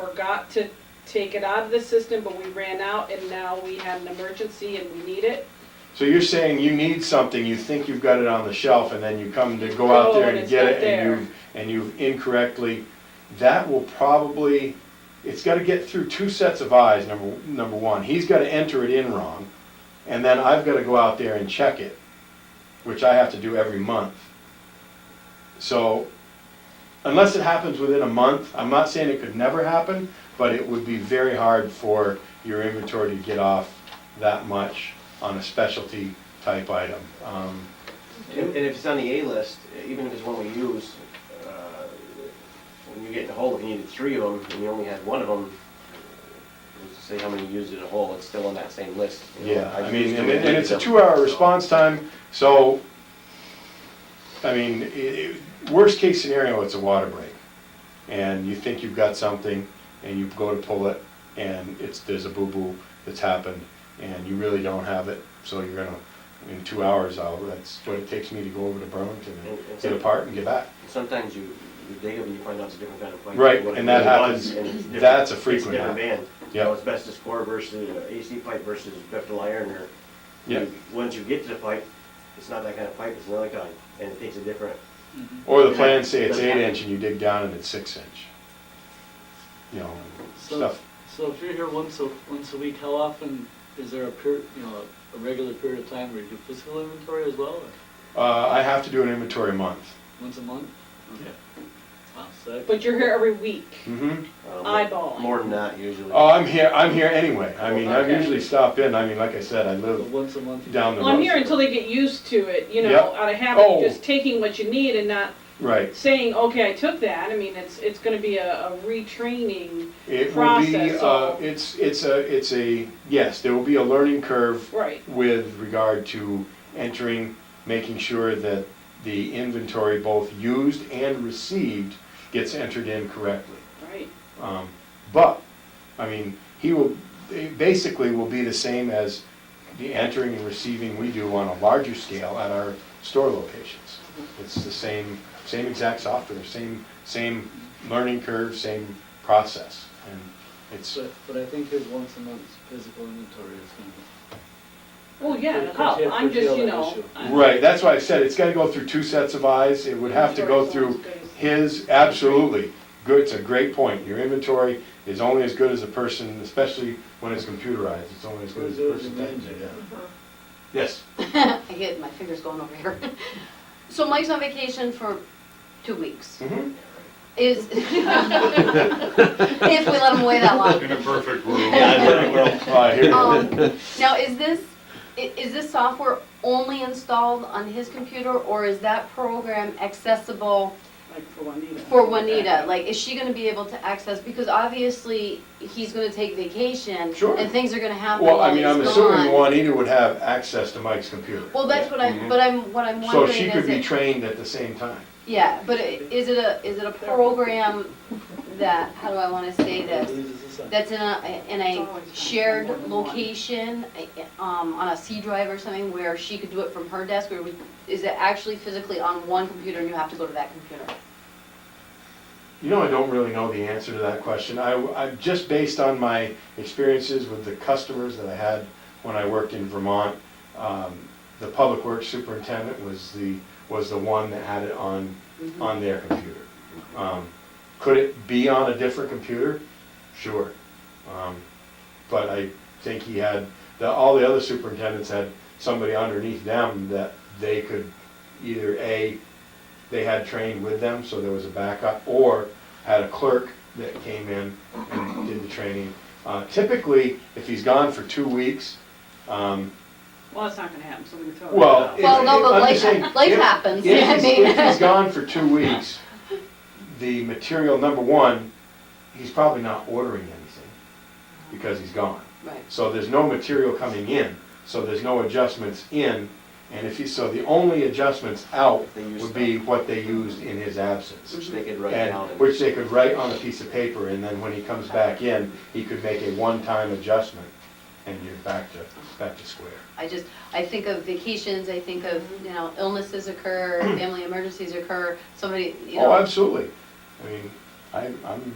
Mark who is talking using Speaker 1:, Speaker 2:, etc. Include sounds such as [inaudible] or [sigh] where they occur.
Speaker 1: forgot to take it out of the system, but we ran out and now we had an emergency and we need it.
Speaker 2: So you're saying you need something, you think you've got it on the shelf, and then you come to go out
Speaker 1: Oh,
Speaker 2: there
Speaker 1: and
Speaker 2: and
Speaker 1: it's
Speaker 2: get
Speaker 1: not
Speaker 2: it, and
Speaker 1: there.
Speaker 2: you, and you incorrectly, that will probably, it's gotta get through two sets of eyes, number, number one. He's gotta enter it in wrong, and then I've gotta go out there and check it, which I have to do every month. So, unless it happens within a month, I'm not saying it could never happen, but it would be very hard for your inventory to get off that much on a specialty type item. Um,
Speaker 3: And and if it's on the A list, even if it's one we use, uh, when you get in the hole, if you needed three of them, and you only had one of them, say how many you used in a hole, it's still on that same list. you know.
Speaker 2: Yeah, I
Speaker 3: I've
Speaker 2: mean,
Speaker 3: used
Speaker 2: and
Speaker 3: them,
Speaker 2: it- and it's a
Speaker 3: so-
Speaker 2: two-hour response time, so, I mean, i- i- worst-case scenario, it's a water break. And you think you've got something, and you go to pull it, and it's, there's a boo-boo that's happened, and you really don't have it, so you're gonna, in two hours, I'll, that's what it takes me to go over to Burlington and get a part and get back.
Speaker 3: Sometimes you you dig up and you find out it's a different kind of pipe.
Speaker 2: Right,
Speaker 3: than what
Speaker 2: and
Speaker 3: it
Speaker 2: that
Speaker 3: really was,
Speaker 2: happens.
Speaker 3: and it's different-
Speaker 2: That's a
Speaker 3: it's
Speaker 2: frequent
Speaker 3: different band. You
Speaker 2: Yep.
Speaker 3: know, asbestos core versus uh, AC pipe versus ductile iron, or,
Speaker 2: Yeah,
Speaker 3: you- once you get to the pipe, it's not that kind of pipe, it's another kind, and it takes a different
Speaker 2: or the plans say it's eight-inch, and you dig down and it's six-inch. You know,
Speaker 4: So,
Speaker 2: stuff.
Speaker 4: so if you're here once a, once a week, how often is there a period, you know, a regular period of time where you do physical inventory as well, or
Speaker 2: Uh, I have to do an inventory month.
Speaker 4: once a month? Okay. Wow, so that-
Speaker 1: But you're here every week.
Speaker 2: Mm-hmm.
Speaker 3: um,
Speaker 1: Eyeballing.
Speaker 3: More than that usually.
Speaker 2: Oh, I'm here, I'm here anyway. I mean, I
Speaker 1: Okay.
Speaker 2: usually stop in, I mean, like I said, I
Speaker 4: but
Speaker 2: live
Speaker 4: once a month? you-
Speaker 2: down the
Speaker 1: Well,
Speaker 2: road.
Speaker 1: I'm here until they get used to it, you know,
Speaker 2: Yep.
Speaker 1: out of habit,
Speaker 2: Oh.
Speaker 1: just taking what you need and not
Speaker 2: Right.
Speaker 1: saying, okay, I took that. I mean, it's, it's gonna be a, a retraining,
Speaker 2: It will be,
Speaker 1: Process
Speaker 2: uh,
Speaker 1: all.
Speaker 2: it's, it's a, it's a, yes, there will be a learning curve
Speaker 1: right,
Speaker 2: with regard to entering, making sure that the inventory, both used and received, gets entered in correctly.
Speaker 1: right.
Speaker 2: Um, But, I mean, he will, it basically will be the same as the entering and receiving we do on a larger scale at our store locations. It's the same, same exact software, same, same learning curve, same process. And it's,
Speaker 4: But, but I think his once a month physical inventory is gonna be.
Speaker 1: Well, Oh, yeah,
Speaker 4: Curtail-
Speaker 1: it help. I'm just, you
Speaker 4: curtail that
Speaker 1: know.
Speaker 4: issue.
Speaker 1: I'm-
Speaker 2: right, that's why I said it's gotta go through two sets of eyes. It would have to go
Speaker 1: Inventory's
Speaker 2: through
Speaker 1: always good as-
Speaker 2: his, absolutely. Good, it's a great point. Your inventory is only as good as a person, especially when it's computerized, it's only as good as the person. that did it. Yes.
Speaker 5: [laughs] I get my fingers going over here. [laughs] So Mike's on vacation for two weeks.
Speaker 2: Mhm.
Speaker 5: Is, [laughs] if we let him away that long.
Speaker 6: In a perfect world.
Speaker 2: [laughs] Uh, here it is.
Speaker 5: Um, Now, is this, i- is this software only installed on his computer, or is that program accessible
Speaker 1: Like for Juanita.
Speaker 5: for Juanita? Like, is she gonna be able to access, because obviously, he's gonna take vacation.
Speaker 2: Sure.
Speaker 5: And things are gonna happen
Speaker 2: Well, I
Speaker 5: while he's
Speaker 2: mean,
Speaker 5: gone.
Speaker 2: I'm assuming Juanita would have access to Mike's computer.
Speaker 5: Well, that's what
Speaker 2: Mhm.
Speaker 5: I'm, but I'm, what I'm
Speaker 2: So
Speaker 5: wondering is
Speaker 2: she could be
Speaker 5: if-
Speaker 2: trained at the same time.
Speaker 5: Yeah, but i- is it a, is it a program that, how do I wanna say this?
Speaker 4: Loses the sun.
Speaker 5: That's in a, in a shared location, i- um, on a C drive or something where she could do it from her desk? Or would- is it actually physically on one computer and you have to go to that computer?
Speaker 2: You know, I don't really know the answer to that question. I, I, just based on my experiences with the customers that I had when I worked in Vermont, um, the public works superintendent was the, was the one that had it on, on their computer. Um, Could it be on a different computer? Sure. Um, But I think he had, the, all the other superintendents had somebody underneath them that they could either A, they had trained with them, so there was a backup, or had a clerk that came in and did the training. Uh, Typically, if he's gone for two weeks, um,
Speaker 1: Well, that's not gonna happen, so we can throw it out.
Speaker 2: well. if-
Speaker 5: Well, no,
Speaker 2: if-
Speaker 5: but
Speaker 2: I'm
Speaker 5: life-
Speaker 2: just saying,
Speaker 5: life
Speaker 2: if-
Speaker 5: happens,
Speaker 2: if
Speaker 5: yeah, I
Speaker 2: he's-
Speaker 5: mean.
Speaker 2: If
Speaker 5: [laughs]
Speaker 2: he's gone for two weeks, the material, number one, he's probably not ordering anything because he's gone.
Speaker 5: Right.
Speaker 2: So there's no material coming in, so there's no adjustments in, and if he, so the only adjustments out
Speaker 3: They used
Speaker 2: would be what they used in his absence.
Speaker 3: Which they could write
Speaker 2: And,
Speaker 3: down. and-
Speaker 2: which they could write on a piece of paper, and then when he comes back in, he could make a one-time adjustment, and you're back to, back to square.
Speaker 5: I just, I think of vacations, I think of, you know, illnesses occur, family emergencies occur, somebody, you know.
Speaker 2: Oh, absolutely. I mean, I, I'm